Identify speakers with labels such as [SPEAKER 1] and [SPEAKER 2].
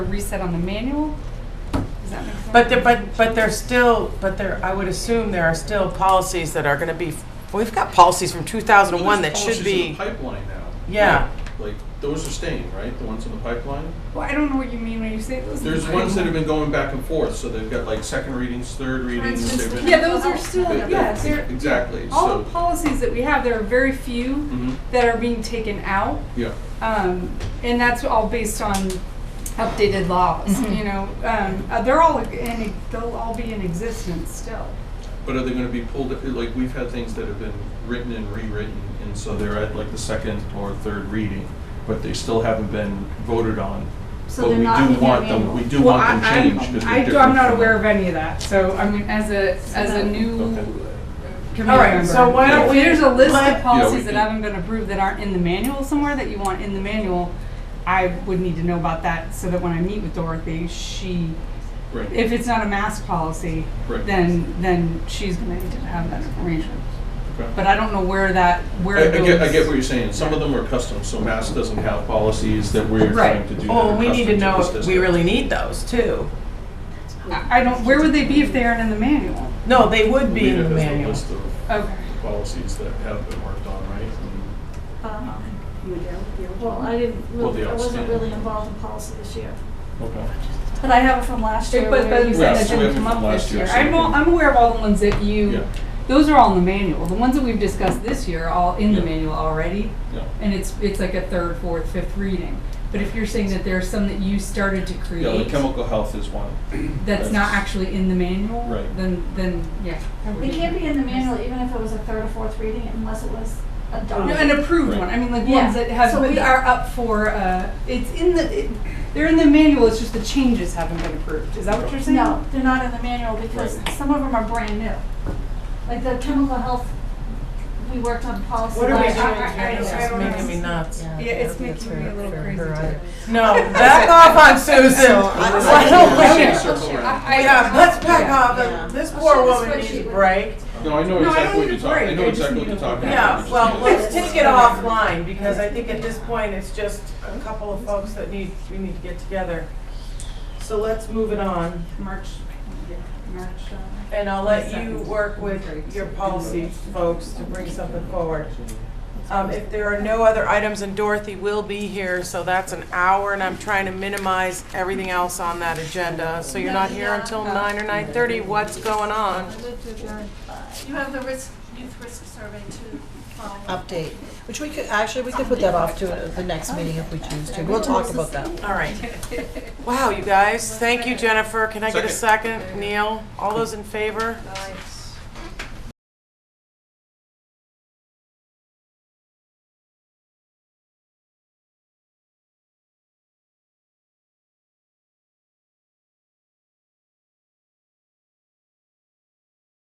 [SPEAKER 1] reset on the manual? Does that make sense?
[SPEAKER 2] But there, but, but there's still, but there, I would assume there are still policies that are gonna be, we've got policies from two thousand and one that should be,
[SPEAKER 3] There's policies in the pipeline now.
[SPEAKER 2] yeah.
[SPEAKER 3] Like, those are staying, right? The ones in the pipeline?
[SPEAKER 1] Well, I don't know what you mean when you say those.
[SPEAKER 3] There's ones that have been going back and forth, so they've got like second readings, third readings,
[SPEAKER 4] instance,
[SPEAKER 3] they've
[SPEAKER 4] the
[SPEAKER 3] been.
[SPEAKER 1] Yeah, those are still,
[SPEAKER 3] they- they-
[SPEAKER 1] yeah, they're.
[SPEAKER 3] Exactly,
[SPEAKER 1] All the
[SPEAKER 3] so,
[SPEAKER 1] policies that we have, there are very few
[SPEAKER 3] mhm,
[SPEAKER 1] that are being taken out.
[SPEAKER 3] yeah.
[SPEAKER 1] Um, and that's all based on updated laws, you know. Um, uh, they're all in, they'll all be in existence still.
[SPEAKER 3] But are they gonna be pulled, like, we've had things that have been written and rewritten, and so they're at like the second or third reading, but they still haven't been voted on.
[SPEAKER 4] So they're not
[SPEAKER 3] But
[SPEAKER 4] in
[SPEAKER 3] we do
[SPEAKER 4] that
[SPEAKER 3] want them,
[SPEAKER 4] manual.
[SPEAKER 3] we do want them changed, because they're
[SPEAKER 1] I,
[SPEAKER 3] different.
[SPEAKER 1] am not
[SPEAKER 3] from-
[SPEAKER 1] aware of any of that, so I mean, as a, as a new
[SPEAKER 3] Okay.
[SPEAKER 1] committee
[SPEAKER 2] All right,
[SPEAKER 1] member,
[SPEAKER 2] so why don't
[SPEAKER 1] if
[SPEAKER 2] we
[SPEAKER 1] There's a list
[SPEAKER 2] let- Yeah,
[SPEAKER 1] of
[SPEAKER 2] we
[SPEAKER 1] policies that
[SPEAKER 3] can-
[SPEAKER 1] haven't been approved that aren't in the manual somewhere that you want in the manual. I would need to know about that so that when I meet with Dorothy, she,
[SPEAKER 3] Right,
[SPEAKER 1] if it's not a mask policy,
[SPEAKER 3] Right.
[SPEAKER 1] then, then she's gonna need to have that information.
[SPEAKER 3] okay.
[SPEAKER 1] But I don't know where that, where
[SPEAKER 3] I, I
[SPEAKER 1] those.
[SPEAKER 3] get, I get what you're saying. Some of them are custom, so Mass doesn't have policies that we're trying
[SPEAKER 1] Right.
[SPEAKER 3] to do. that
[SPEAKER 2] Well,
[SPEAKER 3] are
[SPEAKER 2] Oh, we need to
[SPEAKER 3] custom
[SPEAKER 2] know
[SPEAKER 3] this
[SPEAKER 2] if we
[SPEAKER 3] district.
[SPEAKER 2] really need those too.
[SPEAKER 1] I I don't, where would they be if they aren't in the manual?
[SPEAKER 2] No, they would be in the
[SPEAKER 3] Rita has
[SPEAKER 2] manual.
[SPEAKER 3] list of
[SPEAKER 1] Okay.
[SPEAKER 3] policies that have been worked on, right? And-
[SPEAKER 4] Um, Well, I didn't,
[SPEAKER 3] Well, the
[SPEAKER 4] really- I wasn't
[SPEAKER 3] outstanding.
[SPEAKER 4] really involved in policy this year,
[SPEAKER 3] Okay.
[SPEAKER 4] but I have it from last year.
[SPEAKER 1] But, but
[SPEAKER 4] where
[SPEAKER 1] you
[SPEAKER 4] you
[SPEAKER 1] said
[SPEAKER 3] Yeah,
[SPEAKER 1] that
[SPEAKER 3] so we
[SPEAKER 1] didn't come
[SPEAKER 3] have them
[SPEAKER 1] up
[SPEAKER 3] last
[SPEAKER 1] this
[SPEAKER 3] year,
[SPEAKER 1] year.
[SPEAKER 3] so
[SPEAKER 1] I'm,
[SPEAKER 3] we
[SPEAKER 1] all-
[SPEAKER 3] can-
[SPEAKER 1] I'm aware of all the ones that you,
[SPEAKER 3] Yeah,
[SPEAKER 1] those are all in the manual. The ones that we've discussed this year are all in the
[SPEAKER 3] Yeah.
[SPEAKER 1] manual already.
[SPEAKER 3] yeah.
[SPEAKER 1] And it's, it's like a third, fourth, fifth reading. But if you're saying that there are some that you started to
[SPEAKER 3] Yeah, the
[SPEAKER 1] create
[SPEAKER 3] chemical health is one.
[SPEAKER 1] that's not actually in the manual,
[SPEAKER 3] Right.
[SPEAKER 1] then, then, yeah. I would-
[SPEAKER 4] It can't be in the manual, even if it was a third or fourth reading, unless it was
[SPEAKER 1] No, an
[SPEAKER 4] adopted.
[SPEAKER 1] approved
[SPEAKER 3] Right.
[SPEAKER 1] one. I mean, like
[SPEAKER 4] Yeah.
[SPEAKER 1] ones that have
[SPEAKER 4] So
[SPEAKER 1] but
[SPEAKER 4] we-
[SPEAKER 1] are up for. Uh, it's in the. It, they're in the manual. It's just the changes haven't been approved. Is that what you're saying?
[SPEAKER 4] No, they're not in the manual because
[SPEAKER 3] Right.
[SPEAKER 4] some of them are brand new. Like the chemical health, we worked on policy
[SPEAKER 2] What are we
[SPEAKER 4] last
[SPEAKER 2] doing?
[SPEAKER 4] year.
[SPEAKER 1] I- I-
[SPEAKER 2] It's
[SPEAKER 1] I don't
[SPEAKER 2] making
[SPEAKER 1] know.
[SPEAKER 2] me nuts.
[SPEAKER 1] Yeah, it's making me a little crazy. Too.
[SPEAKER 2] No, back off on Susan. Why don't we-
[SPEAKER 1] Okay.
[SPEAKER 3] Circle around.
[SPEAKER 1] I-
[SPEAKER 2] Yeah, let's back
[SPEAKER 1] Yeah.
[SPEAKER 2] off. This poor
[SPEAKER 4] I'll show
[SPEAKER 2] woman
[SPEAKER 4] this
[SPEAKER 2] needs a
[SPEAKER 4] spreadsheet.
[SPEAKER 2] break.
[SPEAKER 3] No, I know
[SPEAKER 1] No, I
[SPEAKER 3] exactly
[SPEAKER 1] don't
[SPEAKER 3] what you're
[SPEAKER 1] need a
[SPEAKER 3] talking, I
[SPEAKER 1] break.
[SPEAKER 3] know
[SPEAKER 1] I just
[SPEAKER 3] exactly
[SPEAKER 1] need
[SPEAKER 3] what you're
[SPEAKER 1] to
[SPEAKER 3] talking about.
[SPEAKER 2] Yeah,
[SPEAKER 3] You
[SPEAKER 2] well,
[SPEAKER 3] just need to-
[SPEAKER 2] let's take it offline because I think at this point, it's just a couple of folks that need, we need to get together. So let's move it on
[SPEAKER 1] March. yeah, March. Uh,
[SPEAKER 2] and I'll let you work with your policy folks to bring something forward. Um, if there are no other items and Dorothy will be here, so that's an hour and I'm trying to minimize everything else on that agenda. So you're not here until nine or nine thirty. What's going on?
[SPEAKER 4] You have the risk, youth risk survey to follow.
[SPEAKER 5] update, which we could, actually, we could put that off to the next meeting if we choose to. We'll talk about that.
[SPEAKER 2] All right. Wow, you guys. Thank you, Jennifer. Can I get a second? Neil, all those in favor?